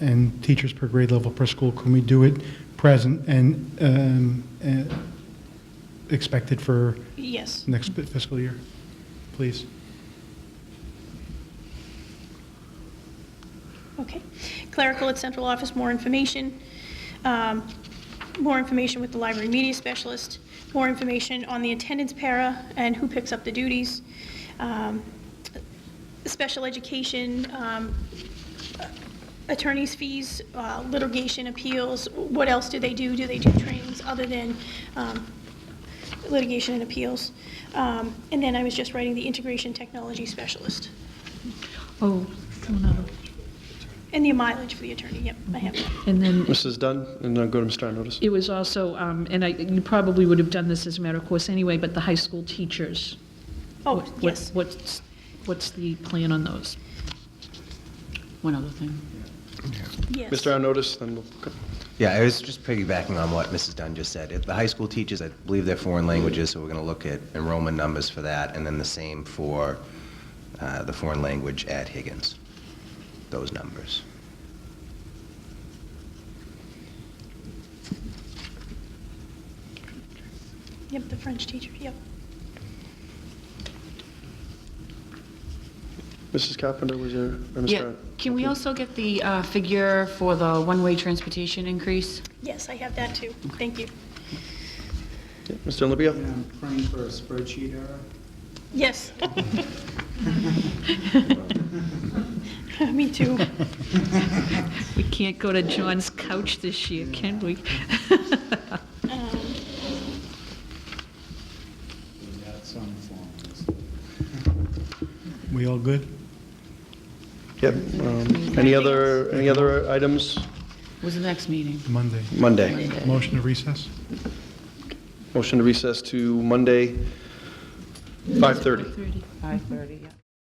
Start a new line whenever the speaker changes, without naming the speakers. and teachers per grade level per school, can we do it present and um, uh, expected for
Yes.
next fiscal year, please?
Okay. Clerical at central office, more information. Um, More information with the library media specialist, more information on the attendance para and who picks up the duties. Um, Special education, um, attorney's fees, uh, litigation appeals, what else do they do? Do they do trainings other than um, litigation and appeals? Um, And then I was just writing the integration technology specialist.
Oh, one other.
And the mileage for the attorney, yep, I have that.
And then
Mrs. Dunn, and then go to Mr. Arnottis.
it was also, um, and I, you probably would have done this as a matter of course anyway, but the high school teachers.
Oh,
What- what-
yes.
What's, what's the plan on those?
One other thing.
Yes.
Mr. Arnottis, then we'll go.
Yeah, I was just piggybacking on what Mrs. Dunn just said. If the high school teachers, I believe they're foreign languages, so we're going to look at enrollment numbers for that, and then the same for uh, the foreign language at Higgins, those numbers.
Yep, the French teacher, yep.
Mrs. Carpenter, was there? or Mr.
Yeah,
Arn-
can we also get the uh, figure for the one-way transportation increase?
Yes, I have that too. Thank you.
Yeah, Mr. Olympia?
And I'm praying for a spreadsheet error.
Yes. Me too.
We can't go to John's couch this year, can we?
Um,
We got some forms.
We all good?
Yep. um, Any other, any other items?
Was the next meeting?
Monday.
Monday.
Motion to recess?
Motion to recess to Monday, 5:30.
5:30, yeah.